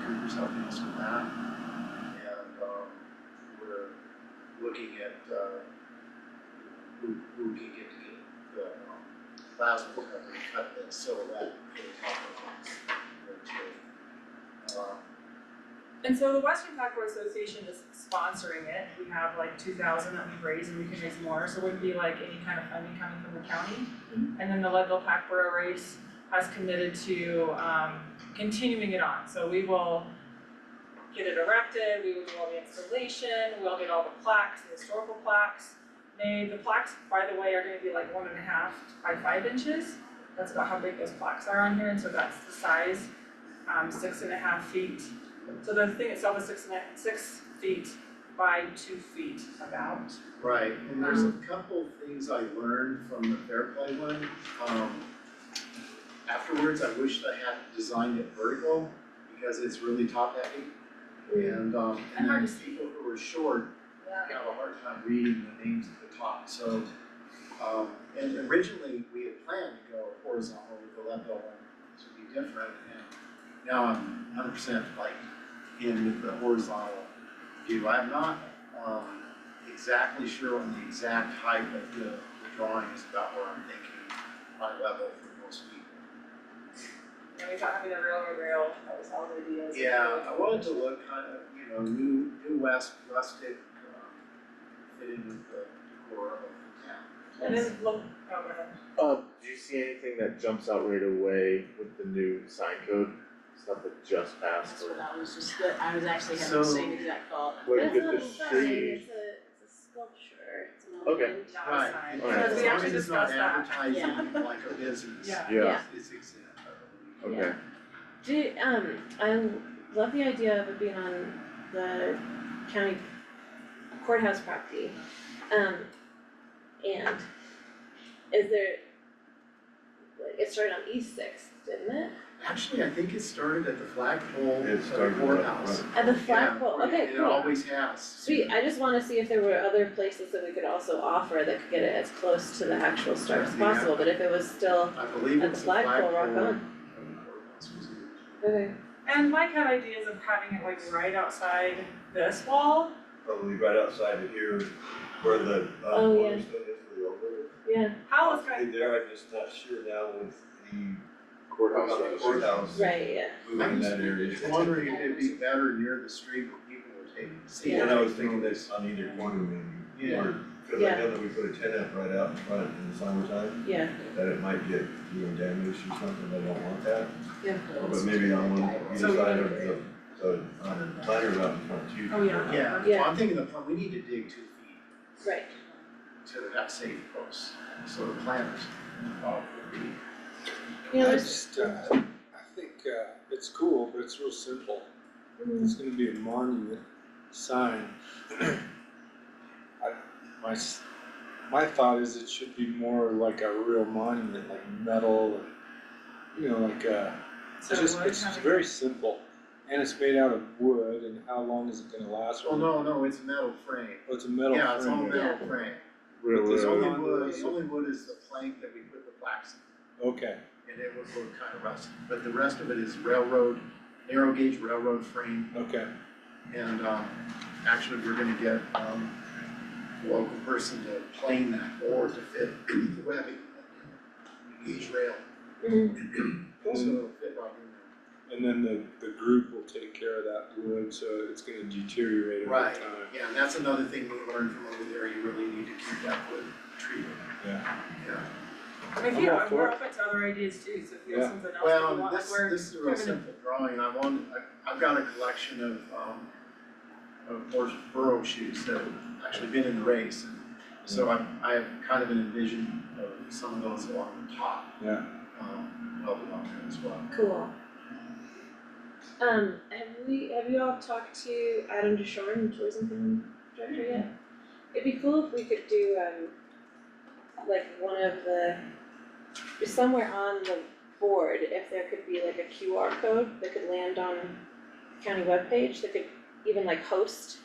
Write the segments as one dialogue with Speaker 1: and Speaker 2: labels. Speaker 1: helping us with that. And, um, we're looking at, uh, who, who we can get to get the, um, plasma cover, to cut the silhouette for the top of us, or two. Um,
Speaker 2: And so the Western Tackle Association is sponsoring it, we have like two thousand that we raise and we can raise more, so it wouldn't be like any kind of funding coming from the county. And then the Leadville Packboro race has committed to um continuing it on, so we will get it erected, we will do all the installation, we'll get all the plaques, the historical plaques. Made, the plaques, by the way, are gonna be like one and a half by five inches, that's about how big those plaques are on here, and so that's the size, um six and a half feet so the thing itself is six and a, six feet by two feet about.
Speaker 1: Right, and there's a couple things I learned from the Fair Play one, um. Afterwards, I wished I had designed it vertical, because it's really top heavy, and um, and
Speaker 2: hard
Speaker 1: then
Speaker 2: to see.
Speaker 1: people who are short
Speaker 2: Yeah.
Speaker 1: have a hard time reading the names at the top, so. Um, and originally, we had planned to go horizontal with the level one, which would be different, and now I'm hundred percent like in with the horizontal view. I'm not, um, exactly sure on the exact height of the, the drawing is about where I'm thinking my level for most people.
Speaker 2: And we thought having the railroad rail, that was all the ideas.
Speaker 1: Yeah, I wanted to look kind of, you know, new, new west, rustic, um, fit in with the decor of the town.
Speaker 2: And then look, oh, go ahead.
Speaker 3: Um, do you see anything that jumps out right away with the new sign code? Stuff that just passed
Speaker 4: That's what
Speaker 3: or
Speaker 4: I was just, that I was actually having the
Speaker 1: So-
Speaker 4: same exact thought.
Speaker 3: where did the
Speaker 5: That's not a sign,
Speaker 3: tree?
Speaker 5: it's a, it's a sculpture, it's a
Speaker 3: Okay.
Speaker 5: monument.
Speaker 2: That was
Speaker 1: Right,
Speaker 2: fine.
Speaker 1: and
Speaker 3: Alright.
Speaker 2: Because
Speaker 1: as
Speaker 2: we
Speaker 1: long
Speaker 2: actually
Speaker 1: as it's not
Speaker 2: discussed that.
Speaker 1: advertising like a business,
Speaker 2: Yeah.
Speaker 3: Yeah,
Speaker 1: it's exempt.
Speaker 3: okay,
Speaker 5: Do, um, I love the idea of it being on the county courthouse property. Um, and is there, like, it started on East Sixth, didn't it?
Speaker 1: Actually, I think it started at the flagpole
Speaker 3: It
Speaker 1: of the
Speaker 3: started at the
Speaker 1: courthouse.
Speaker 5: At the
Speaker 1: Yeah,
Speaker 5: flagpole,
Speaker 1: where
Speaker 5: okay,
Speaker 1: It
Speaker 5: cool.
Speaker 1: always has.
Speaker 5: Sweet, I just wanna see if there were other places that we could also offer that could get it as close to the actual start as
Speaker 1: Yeah.
Speaker 5: possible, but if it was still,
Speaker 1: I believe
Speaker 5: At the
Speaker 1: it's the flagpole.
Speaker 5: flagpole, rock on.
Speaker 1: of the courthouse was used.
Speaker 5: okay,
Speaker 2: And Mike had ideas of having it like right outside this wall.
Speaker 6: probably right outside of here where the uh
Speaker 5: Oh, yeah.
Speaker 6: cornerstone is for the over.
Speaker 5: yeah,
Speaker 2: Hal was kind
Speaker 6: Probably there, I'm just not sure now with the
Speaker 3: courthouse.
Speaker 6: about the
Speaker 3: officers.
Speaker 6: courthouse
Speaker 5: right, yeah.
Speaker 6: moving in that area.
Speaker 1: I was wondering if it'd be better near the street where people would take and see.
Speaker 6: And
Speaker 1: it.
Speaker 6: I was thinking this on either corner maybe,
Speaker 1: Yeah.
Speaker 6: or, cause I
Speaker 5: Yeah.
Speaker 6: know that we put a tent up right out in front in the summertime,
Speaker 5: Yeah,
Speaker 6: that it might get, you know, damaged or something, I don't want that.
Speaker 4: Yeah.
Speaker 6: But maybe on one,
Speaker 2: So-
Speaker 6: either side of the, the, on the minor route in front too.
Speaker 2: Oh, yeah.
Speaker 1: Yeah, well,
Speaker 5: Yeah.
Speaker 1: I'm thinking the, plant- we need to dig two feet
Speaker 5: right,
Speaker 1: to that safe post, so the planters. uh, would be-
Speaker 5: you know,
Speaker 7: I
Speaker 5: there's,
Speaker 7: just, uh, I think, uh, it's cool, but it's real simple.
Speaker 5: mm,
Speaker 7: It's gonna be a monument sign. I, my, s- my thought is it should be more like a real monument, like metal and, you know, like, uh,
Speaker 2: of,
Speaker 7: it's
Speaker 2: so it
Speaker 7: just,
Speaker 2: would
Speaker 7: it's
Speaker 2: have a-
Speaker 7: very simple. And it's made out of wood and how long is it gonna last?
Speaker 1: Well, Oh, no, no, it's a metal frame.
Speaker 7: Oh, It's a metal
Speaker 1: Yeah, it's all
Speaker 7: frame.
Speaker 1: metal frame. It's
Speaker 7: Really?
Speaker 1: only
Speaker 7: Yeah.
Speaker 1: wood, the only wood is the plank that we put the plaques in.
Speaker 7: Okay,
Speaker 1: and it would look kind of rusty, but the rest of it is railroad, narrow gauge railroad frame,
Speaker 7: okay,
Speaker 1: and um, actually, we're gonna get um, a local person to plane that board to fit the webbing, gauge rail,
Speaker 5: mhm,
Speaker 7: Mm-hmm.
Speaker 1: so it'll fit right in
Speaker 7: and then the, the group will take care of that wood, so it's gonna deteriorate
Speaker 1: there.
Speaker 7: over time.
Speaker 1: Right, yeah, and that's another thing we learned from over there, you really need to keep that wood treated.
Speaker 7: Yeah.
Speaker 1: Yeah,
Speaker 2: I mean, if
Speaker 7: I'm
Speaker 2: you,
Speaker 7: all
Speaker 2: and
Speaker 7: for
Speaker 2: we're
Speaker 7: it.
Speaker 2: open to other ideas too, so if you
Speaker 7: Yeah.
Speaker 2: have something else that you
Speaker 1: well,
Speaker 2: want, like
Speaker 1: this,
Speaker 2: we're.
Speaker 1: this is a real
Speaker 2: driven-
Speaker 1: simple drawing, I want, I, I've got a collection of um, of course, burrow shoes that have actually been in the race, and So I, I have kind of an envision of some of those along the top.
Speaker 7: Yeah.
Speaker 1: Um, of the mountain as well.
Speaker 5: cool. Um, have we, have you all talked to Adam Deshorn, Tourism Film Director yet? It'd be cool if we could do, um, like one of the, somewhere on the board, if there could be like a QR code that could land on county webpage, that could even like host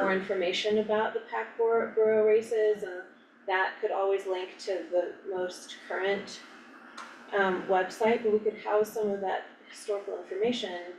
Speaker 5: more information about the pack bor- borough races and that could always link to the most current um website, but we could house some of that historical information